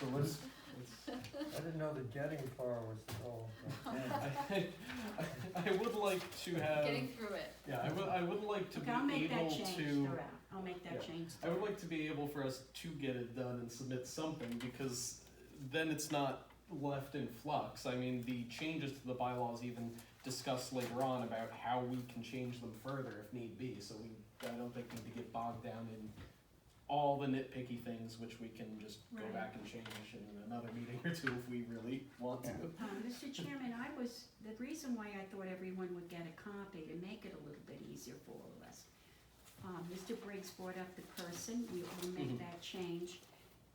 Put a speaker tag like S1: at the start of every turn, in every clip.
S1: So what's, it's, I didn't know that getting far was the goal. but-
S2: I, I would like to have,
S3: Getting through it.
S2: yeah, I would, I would like to
S4: Okay, I'll
S2: be
S4: make that
S2: able
S4: change
S2: to,
S4: throughout, I'll make
S2: Yeah.
S4: that change.
S2: I would like to be able for us to get it done and submit something because then it's not left in flux. I mean, the changes to the bylaws even discuss later on about how we can change them further if need be. So we, I don't think we need to get bogged down in all the nitpicky things, which we can just go
S4: Right.
S2: back and change in another meeting or two if we really want to.
S4: Uh, Mr. Chairman, I was, the reason why I thought everyone would get a copy to make it a little bit easier for all of us. Um, Mr. Briggs brought up the person, we will
S2: Mhm.
S4: make that change.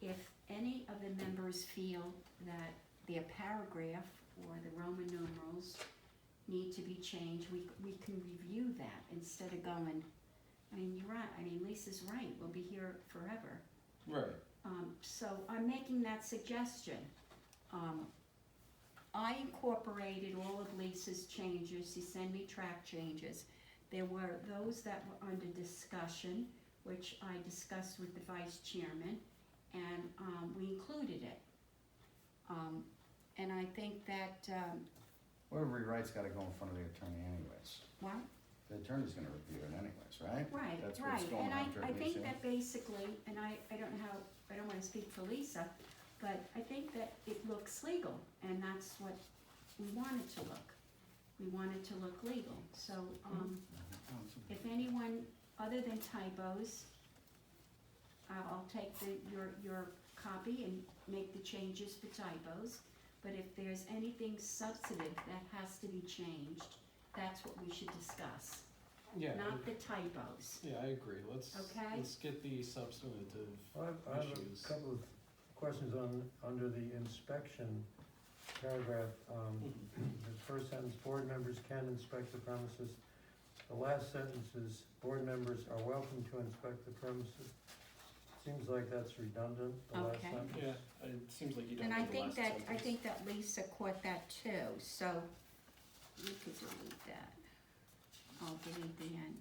S4: If any of the members feel that their paragraph or the Roman numerals need to be changed, we, we can review that instead of going, I mean, you're right, I mean, Lisa's right, we'll be here forever.
S2: Right.
S4: Um, so I'm making that suggestion. Um, I incorporated all of Lisa's changes, she sent me track changes. There were those that were under discussion, which I discussed with the vice chairman, and, um, we included it. Um, and I think that, um,
S5: Whatever we write's gotta go in front of the attorney anyways.
S4: well,
S5: The attorney's gonna review it anyways, right?
S4: Right,
S5: That's what's
S4: right,
S5: going
S4: and I,
S5: on during
S4: I
S5: the
S4: think
S5: issue.
S4: that basically, and I, I don't know how, I don't wanna speak for Lisa, but I think that it looks legal, and that's what we want it to look. We want it to look legal, so, um, if anyone, other than typos, I'll, I'll take the, your, your copy and make the changes for typos, but if there's anything substantive that has to be changed, that's what we should discuss,
S2: Yeah.
S4: not the typos.
S2: Yeah, I agree. Let's
S4: Okay.
S2: let's get the substantive.
S1: I have, I have
S2: Issues.
S1: a couple of questions on, under the inspection paragraph, um,
S5: Mm-hmm.
S2: Mm-hmm.
S1: the first sentence, board members can inspect the premises. The last sentence is, board members are welcome to inspect the premises. Seems like that's redundant, the last
S4: Okay.
S1: sentence.
S2: Yeah, it seems like you don't.
S4: And I
S2: have the
S4: think
S2: last
S4: that, I
S2: sentence.
S4: think that Lisa caught that too, so you could delete that. I'll delete the end.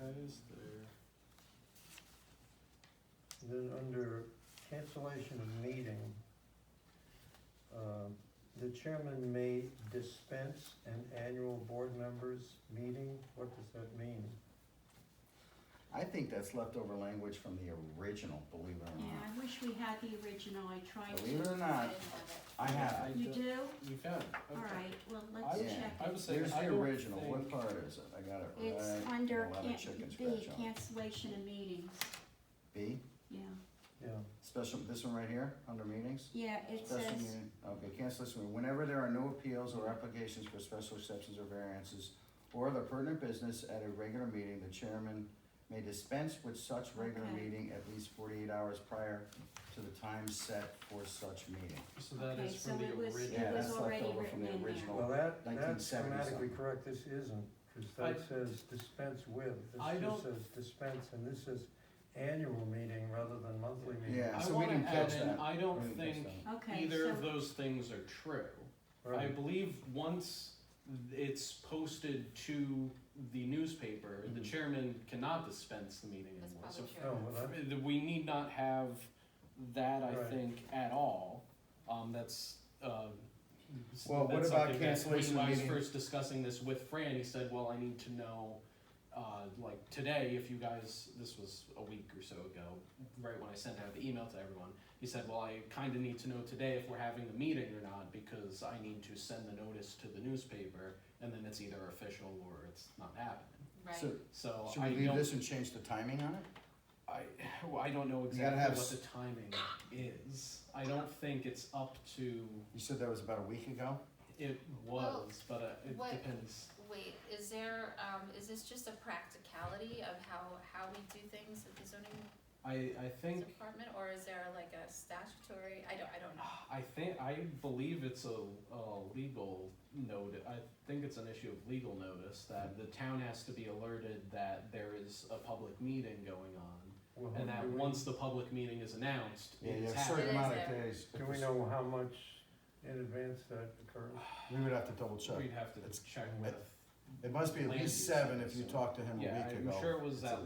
S2: Okay, is there?
S1: Then under cancellation of meeting, um, the chairman may dispense an annual board members' meeting, what does that mean?
S5: I think that's leftover language from the original, believe it or
S4: Yeah,
S5: not.
S4: I wish we had the original, I tried
S5: Believe it
S4: to.
S5: or not, I have it.
S4: You do?
S2: You found it. Okay.
S4: Alright, well,
S2: I
S4: let's
S5: would-
S4: check.
S2: I
S4: it.
S2: was saying.
S5: Here's
S2: I
S5: the
S2: don't
S5: original,
S2: Think,
S5: what part is it? I got it right.
S4: It's under
S5: Well, I have a
S4: can,
S5: chicken
S4: B,
S5: scratch on it.
S4: cancellation of meetings,
S5: B,
S4: yeah.
S1: Yeah,
S5: special, this one right here, under meetings?
S4: Yeah, it
S5: Special
S4: says,
S5: meeting, okay, cancel this one. Whenever there are no appeals or applications for special exceptions or variances or other pertinent business at a regular meeting, the chairman may dispense with such regular
S4: Okay.
S5: meeting at least forty-eight hours prior to the time set for such meeting.
S2: So that
S4: Okay,
S2: is from
S4: so
S2: the
S4: it was-
S2: original.
S5: Yeah,
S4: It was
S5: that's
S4: already
S5: left over from
S4: written in
S5: the
S4: there.
S1: well,
S5: original.
S1: that, that's
S5: 1970
S1: grammatically
S5: something.
S1: correct, this isn't, because
S2: I-
S1: that says dispense with,
S2: I
S1: this
S2: don't-
S1: just says dispense, and this is annual meeting rather than monthly meeting.
S5: Yeah,
S2: I
S5: so we
S2: want
S5: didn't
S2: to add
S5: catch
S2: in.
S5: that.
S2: I
S5: We
S2: don't
S5: didn't catch
S2: think
S5: that.
S4: okay,
S2: either of
S4: so,
S2: those things are true. I
S1: Right,
S2: believe once it's posted to the newspaper, the
S5: Mhm.
S2: chairman cannot dispense the meeting
S3: That's
S2: anymore. So
S3: probably
S1: no,
S3: true.
S1: well, that-
S2: Uh, We need not have that, I
S1: Right.
S2: think, at all. Um, that's, uh, s-
S5: Well, what
S2: that's
S5: about
S2: something that
S5: cancellation
S2: When I was
S5: meeting?
S2: first discussing this with Fran, he said, well, I need to know, uh, like today, if you guys, this was a week or so ago, right when I sent out the email to everyone, he said, well, I kinda need to know today if we're having the meeting or not, because I need to send the notice to the newspaper, and then it's either official or it's not happening.
S3: Right.
S5: So,
S2: So
S5: should
S2: I
S5: we leave
S2: don't
S5: this and change the timing on it?
S2: I, well, I don't know
S5: You gotta
S2: exactly
S5: have
S2: what
S5: s-
S2: the timing is. I don't think it's up to,
S5: You said that was about a week ago?
S2: it
S3: Well,
S2: was, but uh, it
S3: what-
S2: depends.
S3: Wait, is there, um, is this just a practicality of how, how we do things at the zoning
S2: I, I think,
S3: department? Or is there like a statutory, I don't, I don't know.
S2: I think, I believe it's a, a legal note, I think it's an issue of legal notice that the town has to be alerted that there is a public meeting going on.
S1: well,
S2: And that
S1: do we-
S2: once the public meeting is announced,
S5: Yeah, you
S2: it's
S5: have a certain
S2: happening.
S5: amount of
S3: It is there.
S1: Do
S5: days.
S1: we know how much in advance that occurs?
S5: We would have to double check.
S2: We'd have to
S5: It's-
S2: check with,
S5: It must be at
S2: Land
S5: least
S2: use,
S5: seven if you
S2: so-
S5: talked to him a week
S2: yeah,
S5: ago.
S2: I'm sure it was
S5: It's a
S2: that